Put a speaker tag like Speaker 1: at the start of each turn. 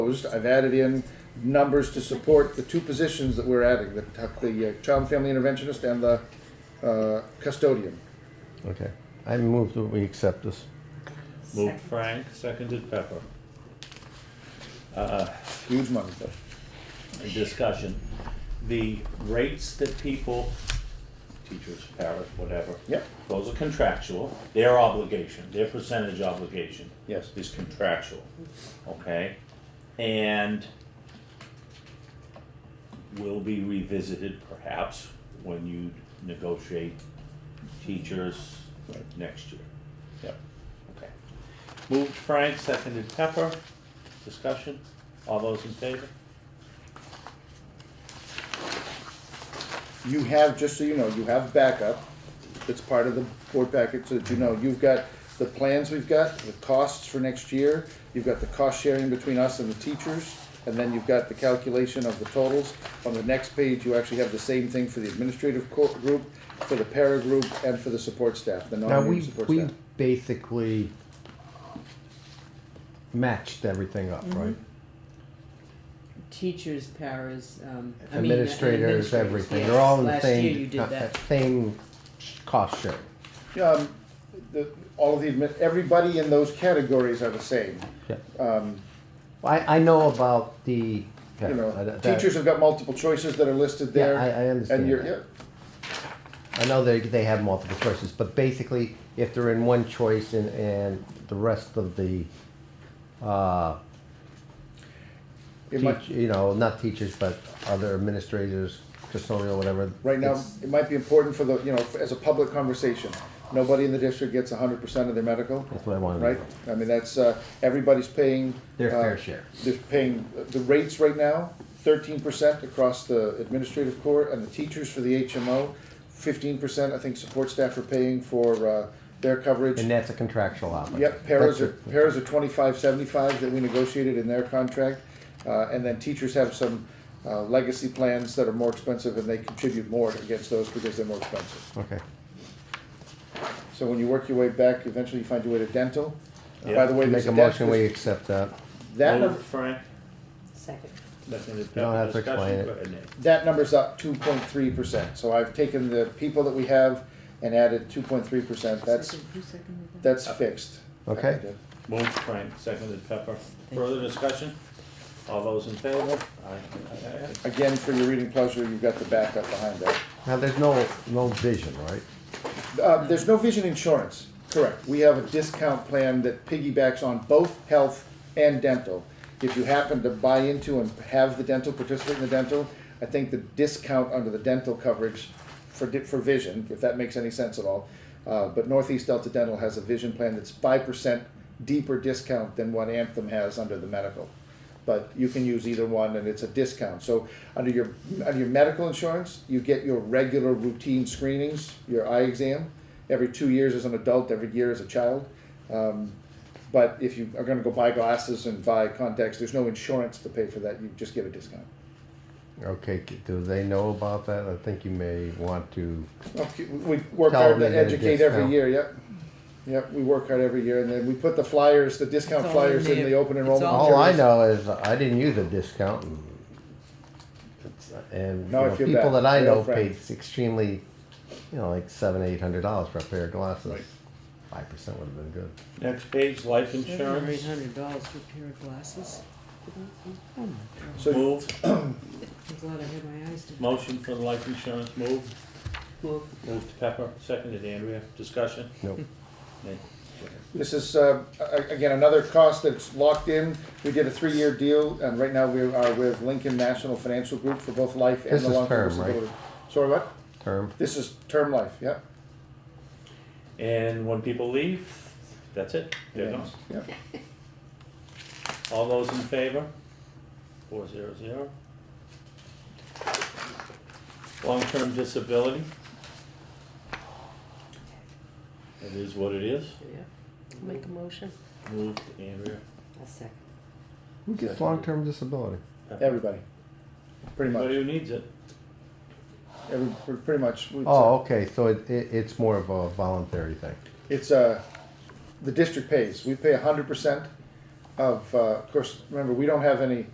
Speaker 1: Proposed, I've added in numbers to support the two positions that we're adding, the, the uh, child and family interventionist and the, uh, custodian.
Speaker 2: Okay, I move that we accept this.
Speaker 3: Moved Frank, seconded Pepper.
Speaker 1: Huge money, but
Speaker 3: Discussion. The rates that people, teachers, parents, whatever.
Speaker 1: Yep.
Speaker 3: Those are contractual. Their obligation, their percentage obligation.
Speaker 1: Yes.
Speaker 3: Is contractual, okay? And will be revisited perhaps when you negotiate teachers next year.
Speaker 1: Yep.
Speaker 3: Okay. Moved Frank, seconded Pepper. Discussion? All those in favor?
Speaker 1: you have, just so you know, you have backup. It's part of the board packet so that you know, you've got the plans we've got, the costs for next year, you've got the cost sharing between us and the teachers, and then you've got the calculation of the totals. On the next page, you actually have the same thing for the administrative co- group, for the para group, and for the support staff, the
Speaker 2: Now,
Speaker 1: non-union
Speaker 2: we,
Speaker 1: Oh, support
Speaker 2: we
Speaker 1: staff.
Speaker 2: basically matched everything up,
Speaker 1: Mm-hmm.
Speaker 2: right?
Speaker 4: teachers, paras, um, I mean, uh,
Speaker 2: Administrators,
Speaker 4: administrators,
Speaker 2: everything,
Speaker 4: yes.
Speaker 2: they're all in the
Speaker 4: Last year you
Speaker 2: same, uh,
Speaker 4: did that.
Speaker 2: same cost share.
Speaker 1: Yeah, um, the, all of the, admin- everybody in those categories are the same.
Speaker 2: I, I know about the.
Speaker 1: You
Speaker 2: yeah, I-
Speaker 1: know,
Speaker 2: that-
Speaker 1: teachers have got multiple choices that are listed
Speaker 2: Yeah,
Speaker 1: there.
Speaker 2: I- I understand
Speaker 1: And you're,
Speaker 2: that.
Speaker 1: yeah,
Speaker 2: I know they, they have multiple choices, but basically, if they're in one choice and, and the rest of the, uh,
Speaker 1: it might-
Speaker 2: teach, you know, not teachers, but other administrators, custodial, whatever.
Speaker 1: Right now,
Speaker 2: it's-
Speaker 1: it might be important for the, you know, as a public conversation, nobody in the district gets hundred percent of their medical,
Speaker 2: That's what I wanted to
Speaker 1: right? I mean, that's, uh, everybody's paying.
Speaker 2: Their
Speaker 1: uh,
Speaker 2: fair share.
Speaker 1: They're paying, uh, the rates right now, thirteen percent across the administrative corps and the teachers for the HMO, fifteen percent, I think, support staff are paying for, uh, their coverage.
Speaker 2: And that's a contractual obligation.
Speaker 1: Yep, paras
Speaker 2: That's
Speaker 1: are, paras are twenty-five seventy-five that we negotiated in their contract. Uh, and then teachers have some, uh, legacy plans that are more expensive and they contribute more against those because they're more expensive.
Speaker 2: a- Okay,
Speaker 1: So when you work your way back, eventually you find your way to dental. By
Speaker 3: Yeah.
Speaker 1: the way,
Speaker 2: make
Speaker 1: there's
Speaker 2: a
Speaker 1: a
Speaker 2: motion, we
Speaker 1: that,
Speaker 2: accept that.
Speaker 1: that,
Speaker 3: Moved
Speaker 1: num-
Speaker 3: Frank,
Speaker 4: Second.
Speaker 3: seconded
Speaker 2: You don't
Speaker 3: Pepper.
Speaker 2: have to explain
Speaker 3: Discussion?
Speaker 2: it.
Speaker 3: Go ahead, Nate.
Speaker 1: that number's up two point three percent. So I've taken the people that we have and added two point three percent. That's,
Speaker 4: Second. Who seconded that?
Speaker 1: that's fixed.
Speaker 2: Uh, Okay.
Speaker 3: Moved Frank, seconded Pepper. Further discussion? All those in favor? Aye, aye, aye, aye.
Speaker 1: Again, for your reading pleasure, you've got the backup behind that.
Speaker 2: Now, there's no, no vision, right?
Speaker 1: Uh, there's no vision insurance, correct. We have a discount plan that piggybacks on both health and dental. If you happen to buy into and have the dental, participate in the dental, I think the discount under the dental coverage for, di- for vision, if that makes any sense at all. Uh, but Northeast Delta Dental has a vision plan that's five percent deeper discount than what Anthem has under the medical. But you can use either one and it's a discount. So under your, under your medical insurance, you get your regular routine screenings, your eye exam, every two years as an adult, every year as a child. Um, but if you are gonna go buy glasses and buy contacts, there's no insurance to pay for that, you just get a discount.
Speaker 2: Okay, do they know about that? I think you may want to,
Speaker 1: Okay, we we work
Speaker 2: Tell
Speaker 1: hard to
Speaker 2: them they're
Speaker 1: educate
Speaker 2: discount.
Speaker 1: every year, yep. Yep, we work hard every year, and then we put the flyers, the discount
Speaker 4: It's all in
Speaker 1: flyers in
Speaker 4: there.
Speaker 1: the open
Speaker 4: It's
Speaker 1: enrollment.
Speaker 4: all-
Speaker 2: all I
Speaker 1: materials.
Speaker 2: know is I didn't use a discount. and- And, you
Speaker 1: No, I
Speaker 2: know,
Speaker 1: feel
Speaker 2: people
Speaker 1: bad.
Speaker 2: that I
Speaker 1: They're all
Speaker 2: know paid
Speaker 1: friends.
Speaker 2: extremely, you know, like seven, eight hundred dollars for a pair of glasses. Five percent would have been good.
Speaker 3: Next page, life
Speaker 4: Seven or eight
Speaker 3: insurance.
Speaker 4: hundred dollars for a pair of glasses. Oh my God,
Speaker 1: So
Speaker 3: Moved.
Speaker 4: I'm glad I had my eyes to.
Speaker 3: Motion for the life insurance, moved. Moved Pepper, seconded Andrea. Discussion?
Speaker 2: Nope.
Speaker 3: Nate.
Speaker 1: This is, uh, a- again, another cost that's locked in. We did a three-year deal, and right now we are with Lincoln National Financial Group for both life and
Speaker 2: This
Speaker 1: the
Speaker 2: is
Speaker 1: long-term
Speaker 2: term, right?
Speaker 1: disability. Sorry, what?
Speaker 2: Term,
Speaker 1: This is term life, yeah.
Speaker 3: And when people leave, that's it. They're gone.
Speaker 1: Yeah.
Speaker 3: All those in favor? Four zero zero. Long-term disability. It is what it is.
Speaker 4: Make a motion.
Speaker 3: Moved Andrea.
Speaker 4: A second.
Speaker 2: who gets long-term disability?
Speaker 1: Everybody, pretty much,
Speaker 3: Everybody who needs it.
Speaker 1: every, pr- pretty much. It's, uh,
Speaker 2: Oh, okay, so it, it, it's more of a voluntary thing.
Speaker 1: It's, uh, the district pays. We pay hundred percent. of, uh, of course, remember, we don't have any